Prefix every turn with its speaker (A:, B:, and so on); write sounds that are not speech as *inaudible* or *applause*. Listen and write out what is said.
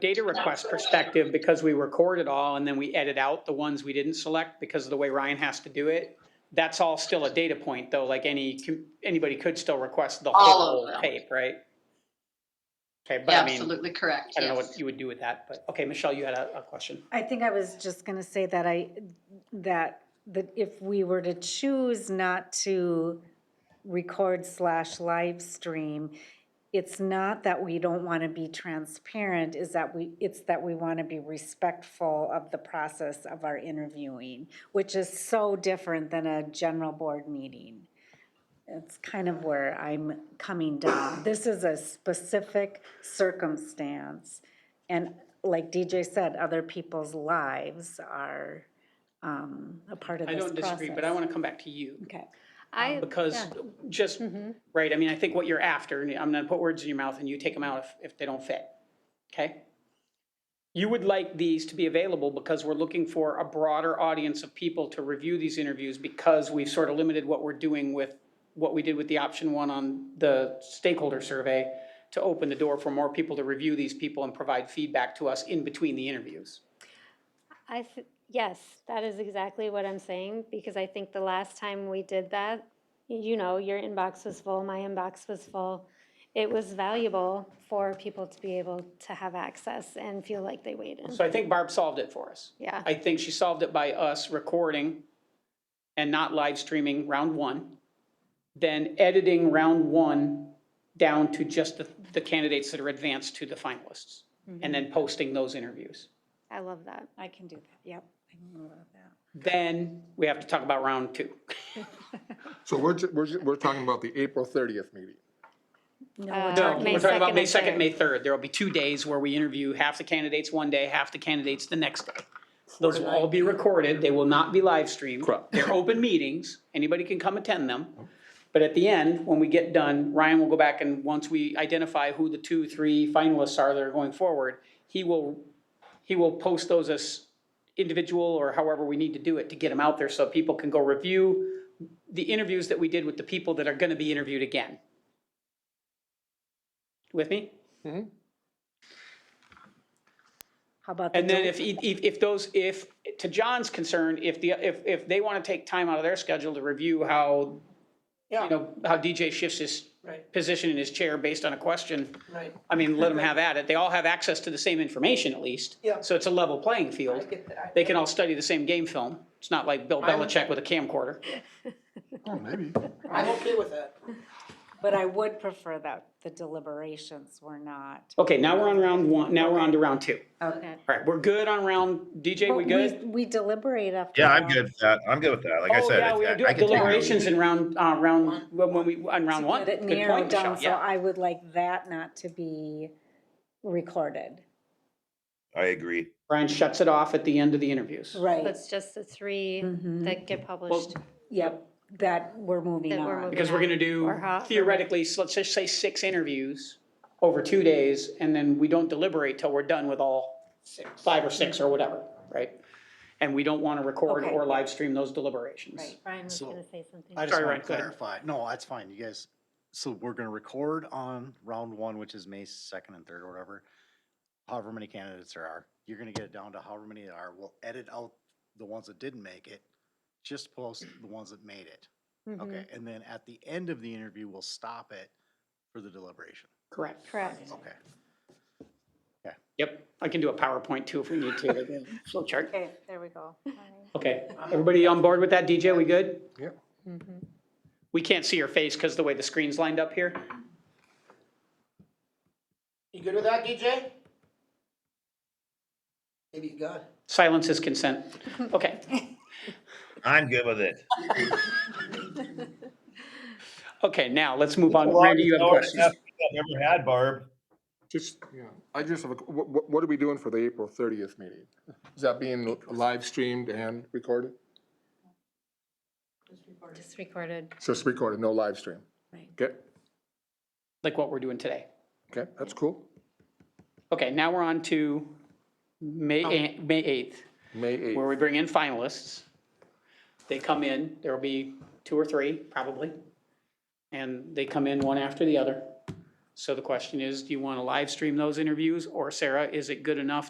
A: data request perspective, because we record it all and then we edit out the ones we didn't select because of the way Ryan has to do it, that's all still a data point though, like any, com- anybody could still request the
B: All of
A: whole
B: them.
A: tape, right? Okay, but I mean, I
B: Absolutely correct,
A: don't know
B: yes.
A: what you would do with that, but, okay, Michelle, you had a, a question.
C: I think I was just gonna say that I, that, that if we were to choose not to record slash live stream, it's not that we don't wanna be transparent, is that we, it's that we wanna be respectful of the process of our interviewing, which is so different than a general board meeting. It's kind of where I'm coming down. This is a specific circumstance. And like DJ said, other people's lives are um, a part of
A: I
C: this
A: don't
C: process.
A: disagree, but I want to come back to you.
C: Okay.
D: I,
A: Because just, right, I mean, I think what you're after, and I'm gonna put words in your mouth and you take them out if, if they don't fit, okay? You would like these to be available because we're looking for a broader audience of people to review these interviews because we've sort of limited what we're doing with, what we did with the option one on the stakeholder survey to open the door for more people to review these people and provide feedback to us in between the interviews.
D: I, th- yes, that is exactly what I'm saying, because I think the last time we did that, you know, your inbox was full, my inbox was full. It was valuable for people to be able to have access and feel like they weighed in.
A: So I think Barb solved it for us.
D: Yeah,
A: I think she solved it by us recording and not live streaming round one, then editing round one down to just the, the candidates that are advanced to the finalists, and then posting those interviews.
D: I love that.
C: I can do that, yep. I can do that.
A: Then we have to talk about round two. *laughs*
E: So we're, ju- we're, ju- we're talking about the April thirtieth meeting.
C: No,
D: Uh,
C: we're
A: No,
C: talking-
D: May
A: we're talking about
D: 2nd
A: May
D: and
A: second,
D: 3rd.
A: May third. There'll be two days where we interview half the candidates one day, half the candidates the next day. Those will all be recorded. They will not be live streamed.
E: Correct.
A: They're open meetings. Anybody can come attend them. But at the end, when we get done, Ryan will go back and once we identify who the two, three finalists are that are going forward, he will, he will post those as individual or however we need to do it to get them out there so people can go review the interviews that we did with the people that are gonna be interviewed again. With me?
C: How about the
A: And then
C: date?
A: if, if, if those, if, to John's concern, if the, if, if they want to take time out of their schedule to review how, you know, how DJ shifts his
F: Right.
A: position in his chair based on a question,
F: Right,
A: I mean, let them have at it. They all have access to the same information at least.
F: Yeah.
A: So it's a level playing
F: I
A: field.
F: get that.
A: They can all study the same game film. It's not like Bill
F: I'm-
A: Belichick with a camcorder.
E: Oh, maybe.
F: I'm okay with that.
C: But I would prefer that the deliberations were not.
A: Okay, now we're on round one, now we're on to round two.
C: Okay.
A: All right, we're good on round, DJ, we good?
C: We deliberate after.
G: Yeah, I'm
C: that.
G: good with that. I'm good with that. Like I
A: Um, Oh,
G: said,
A: yeah,
G: if-
A: we
G: I-
A: were
G: I
A: doing
G: can take it or leave
A: deliberations in round, uh, round, when when we, on round one.
C: Get it
A: Good
C: narrowed
A: point, Michelle,
C: down, so
A: yeah.
C: I would like that not to be recorded.
G: it. I agree.
A: Brian shuts it off at the end of the interviews.
C: Right,
D: That's just the three
C: Mhm.
D: that get published.
C: yep, that we're moving
D: That we're
C: on.
D: moving
A: Because we're gonna do
D: Or how-
A: theoretically, so let's just say six interviews over two days, and then we don't deliberate till we're done with all five or six or whatever, right? And we don't wanna record
C: Okay.
A: or live stream those deliberations.
C: Right.
D: Brian was
H: So,
D: gonna say something.
H: I just
A: Sorry,
H: want
A: Ryan,
H: to
A: go ahead.
H: clarify. No, that's fine. You guys, so we're gonna record on round one, which is May second and third or whatever. However many candidates there are, you're gonna get it down to however many there are. We'll edit out the ones that didn't make it. Just post the ones that made it.
D: Mhm.
A: Mm-hmm.
H: Okay, and then at the end of the interview, we'll stop it for the deliberation.
A: Correct.
D: Correct.
H: Okay.
A: Yep, I can do a PowerPoint too if we need to, like
C: *laughs*
A: a flow chart.
C: Okay, there we go.
A: Okay, everybody on board with that? DJ, we good?
E: Yep.
A: We can't see your face because the way the screen's lined up here.
F: You good with that, DJ? Maybe you got it.
A: Silence is consent. Okay.
G: I'm good with it.
A: Okay, now let's move on.
G: Well,
A: Randy, you have
G: it's already
A: questions?
G: enough I've never had, Barb.
E: Just, yeah, I just have a, what, what are we doing for the April thirtieth meeting? Is that being live streamed and recorded?
D: Just recorded.
E: So it's recorded, no live stream?
C: Right.
E: Okay,
A: Like what we're doing today.
E: okay, that's cool.
A: Okay, now we're on to May, eh, May 8th,
E: May eighth.
A: where we bring in finalists. They come in, there'll be two or three probably, and they come in one after the other. So the question is, do you want to live stream those interviews? Or Sarah, is it good enough